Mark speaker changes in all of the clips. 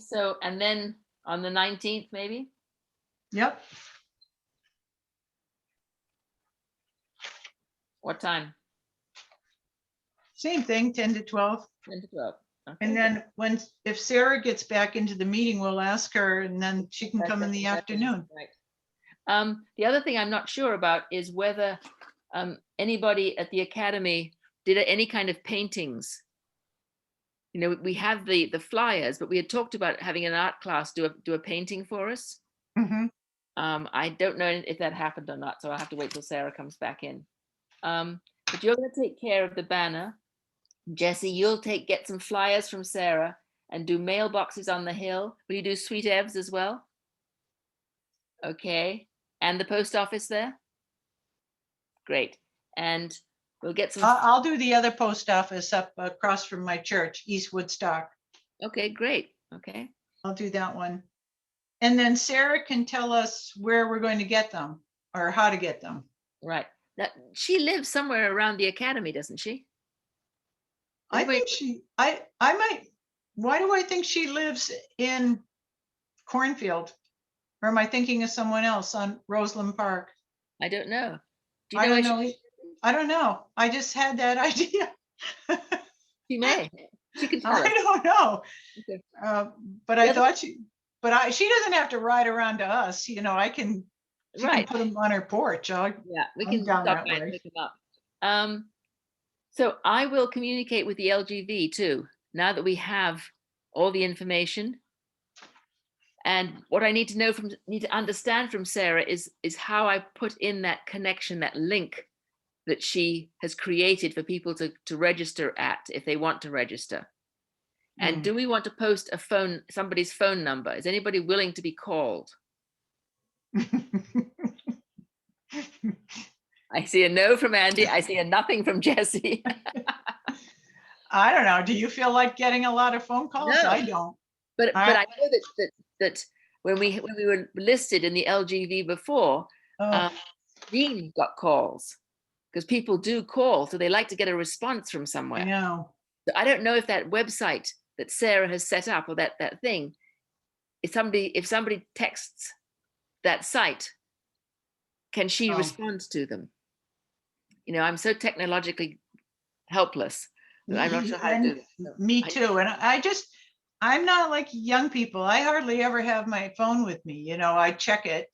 Speaker 1: so, and then on the nineteenth, maybe?
Speaker 2: Yep,
Speaker 1: What time?
Speaker 2: same thing, ten to twelve.
Speaker 1: Ten to twelve. Okay,
Speaker 2: And then when, if Sarah gets back into the meeting, we'll ask her and then she can
Speaker 1: that's
Speaker 2: come in
Speaker 1: it,
Speaker 2: the
Speaker 1: that's it,
Speaker 2: afternoon.
Speaker 1: right. Um, the other thing I'm not sure about is whether, um, anybody at the academy did any kind of paintings. You know, we have the, the flyers, but we had talked about having an art class do a, do a painting for us.
Speaker 2: Mhm.
Speaker 1: Um, I don't know if that happened or not, so I'll have to wait till Sarah comes back in. Um, but you're gonna take care of the banner. Jesse, you'll take, get some flyers from Sarah and do mailboxes on the hill. Will you do Sweet Ev's as well? Okay, and the post office there? Great, and we'll get some,
Speaker 2: I'll, I'll do the other post office up across from my church, East Woodstock.
Speaker 1: okay, great, okay.
Speaker 2: I'll do that one. And then Sarah can tell us where we're going to get them or how to get them.
Speaker 1: Right, that, she lives somewhere around the academy, doesn't she?
Speaker 2: I
Speaker 1: Wait.
Speaker 2: think she, I, I might, why do I think she lives in Cornfield? Or am I thinking of someone else on Roseland Park?
Speaker 1: I don't know. Do you
Speaker 2: I
Speaker 1: know
Speaker 2: don't
Speaker 1: where
Speaker 2: know. e- I don't know. I just had that idea.
Speaker 1: She she may, she can tell us.
Speaker 2: I don't know.
Speaker 1: Okay.
Speaker 2: Uh, But I
Speaker 1: Yeah, but-
Speaker 2: thought she, but I, she doesn't have to ride around to us, you know, I can, she can
Speaker 1: Right.
Speaker 2: put them on her porch. I,
Speaker 1: Yeah, we
Speaker 2: I'm
Speaker 1: can
Speaker 2: down
Speaker 1: stop
Speaker 2: that
Speaker 1: by
Speaker 2: way.
Speaker 1: and pick them up. Um, so I will communicate with the LGV too, now that we have all the information. And what I need to know from, need to understand from Sarah is, is how I put in that connection, that link that she has created for people to, to register at if they want to register. And
Speaker 2: Mm.
Speaker 1: do we want to post a phone, somebody's phone number? Is anybody willing to be called? I see a no from Andy. I see a nothing from Jesse.
Speaker 2: I don't know. Do you feel like getting a lot of phone calls?
Speaker 1: No.
Speaker 2: I don't.
Speaker 1: But,
Speaker 2: All
Speaker 1: but I
Speaker 2: right.
Speaker 1: know that, that, that when we, when we were listed in the LGV before,
Speaker 2: Ugh.
Speaker 1: um, Dean got calls. Because people do call, so they like to get a response from
Speaker 2: I
Speaker 1: somewhere.
Speaker 2: know.
Speaker 1: So I don't know if that website that Sarah has set up or that, that thing, if somebody, if somebody texts that site, can she
Speaker 2: Oh.
Speaker 1: respond to them? You know, I'm so technologically helpless. that I'm not sure how to do that. so
Speaker 2: Me
Speaker 1: I-
Speaker 2: too. And I I just, I'm not like young people. I hardly ever have my phone with me. You know, I check it.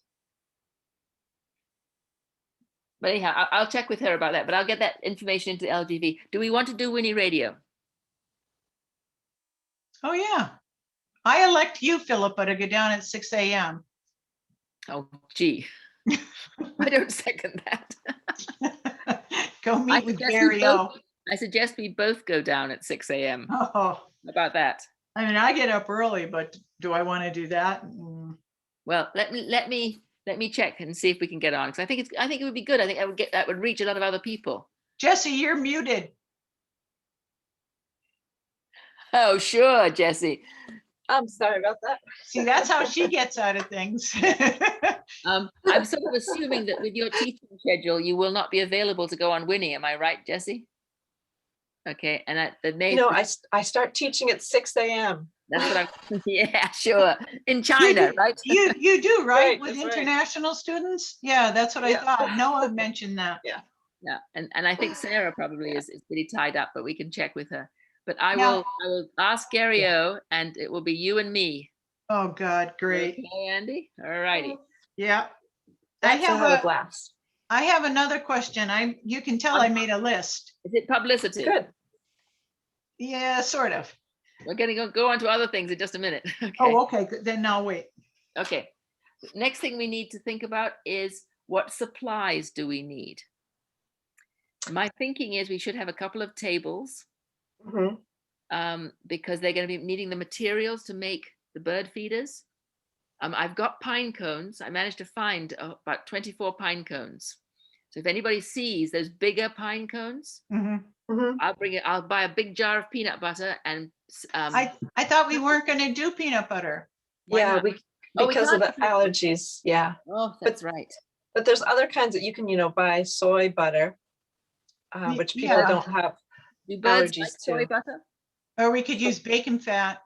Speaker 1: But anyhow, I'll, I'll check with her about that, but I'll get that information into the LGV. Do we want to do Winnie Radio?
Speaker 2: Oh, yeah. I elect you, Philippa, to go down at six AM.
Speaker 1: Oh, gee. I don't second that.
Speaker 2: Go meet with
Speaker 1: suggest we
Speaker 2: Gary O.
Speaker 1: both- I suggest we both go down at six AM. How
Speaker 2: Oh,
Speaker 1: About that.
Speaker 2: I mean, I get up early, but do I want to do that? Mm,
Speaker 1: Well, let me, let me, let me check and see if we can get on, because I think it's, I think it would be good. I think I would get, that would reach a lot of other people.
Speaker 2: Jesse, you're muted.
Speaker 1: Oh, sure, Jesse. I'm sorry about that.
Speaker 2: See, that's how she gets out of things.
Speaker 1: Um, I'm sort of assuming that with your teaching schedule, you will not be available to go on Winnie. Am I right, Jesse? Okay, and I, the May.
Speaker 3: No, I, s- I start teaching at six AM.
Speaker 1: That's what I'm, yeah, sure. In China,
Speaker 2: do-
Speaker 1: right?
Speaker 2: You, you do, right?
Speaker 3: Right,
Speaker 2: With
Speaker 3: that's right.
Speaker 2: international students? Yeah, that's what I
Speaker 3: Yeah.
Speaker 2: thought. Noah mentioned that.
Speaker 1: Yeah, and, and I think Sarah probably is, is pretty tied up, but we can check with her. But I
Speaker 2: Yeah.
Speaker 1: will, I will ask Gary O and it will be you and me.
Speaker 2: Oh, God, great.
Speaker 1: Okay, Andy, all righty.
Speaker 2: Yeah. I
Speaker 3: That's
Speaker 2: have
Speaker 3: another
Speaker 2: a-
Speaker 3: blast.
Speaker 2: I have another question. I, you can tell I made a list.
Speaker 1: Is it publicity?
Speaker 3: Good.
Speaker 2: Yeah, sort of.
Speaker 1: We're gonna go, go on to other things in just a minute. Okay,
Speaker 2: Oh, okay, good, then I'll wait.
Speaker 1: okay. Next thing we need to think about is what supplies do we need? My thinking is we should have a couple of tables.
Speaker 3: Mhm.
Speaker 1: um, because they're going to be needing the materials to make the bird feeders. Um, I've got pine cones. I managed to find uh, about 24 pine cones. So if anybody sees those bigger pine cones,
Speaker 2: Mhm.
Speaker 3: Mhm.
Speaker 1: I'll bring it. I'll buy a big jar of peanut butter and s- um,
Speaker 2: I, I thought we weren't gonna do peanut butter.
Speaker 1: why
Speaker 3: Yeah,
Speaker 1: not?
Speaker 3: we,
Speaker 1: Oh, we
Speaker 3: because of the
Speaker 1: can't do-
Speaker 3: allergies, yeah.
Speaker 1: oh, that's right.
Speaker 3: But there's other kinds that you can, you know, buy soy butter, uh,
Speaker 2: Ye-
Speaker 3: which people
Speaker 2: yeah.
Speaker 3: don't have.
Speaker 1: Do birds like
Speaker 3: allergies
Speaker 1: soy
Speaker 3: too.
Speaker 1: butter?
Speaker 2: Or we could use bacon fat.